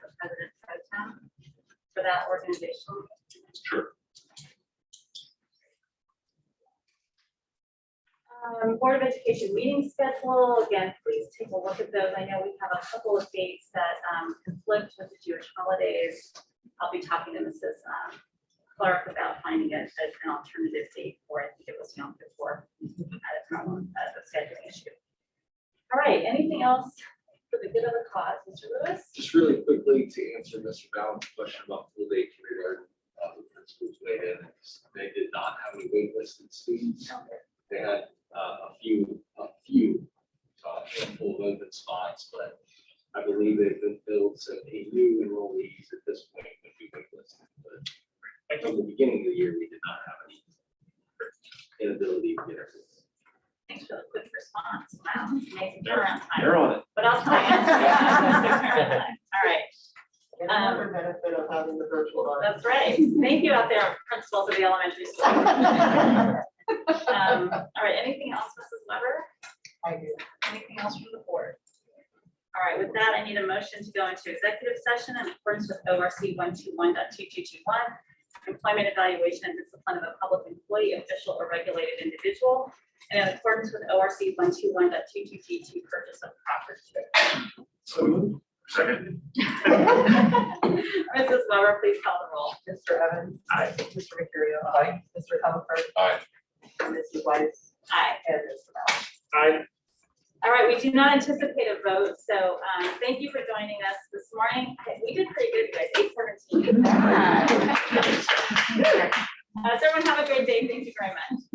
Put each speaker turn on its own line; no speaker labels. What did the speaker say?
for that organization.
Sure.
Um, Board of Education meeting schedule, again, please take a look at those. I know we have a couple of dates that um, conflict with the Jewish holidays. I'll be talking to Mrs. um, Clark about finding a- an alternative date for, it. I think it was Yom Kippur. That's not one, that's a scheduling issue. All right, anything else for the good of the cause, Mr. Lewis?
Just really quickly to answer Mr. Ballard's question about full day kindergarten, uh, the principals weighed in. They did not have any waitlisted students. They had, uh, a few, a few, uh, handful of open spots, but I believe they've been filled, so a new enrollees at this point would be waitlisted. But like from the beginning of the year, we did not have any inability to get everything.
Thanks for the quick response. Wow, amazing turnaround time.
They're on it.
But I'll tell you. All right,
And another benefit of having the virtual audience.
that's right. Thank you out there, principals of the elementary school.
I
Um, All right, anything else, Mrs. Weber?
do.
Anything else from the board? All right, with that, I need a motion to go into executive session in accordance with ORC 121.2221, employment evaluation and discipline of a public employee, official or regulated individual, and in accordance with ORC 121.22G2, purchase of property.
So moved. Second.
Mrs. Weber, please call the roll.
Mr. Evans.
Aye.
Mr. Mercurio. Aye. Mr. Comer.
Aye.
And Mrs. Weiss.
Aye.
And Mr. Ballard.
Aye.
All right, we do not anticipate a vote, so um, thank you for joining us this morning. I- We did pretty good, guys, eight seventeen. Uh, So everyone have a great day. Thank you very much.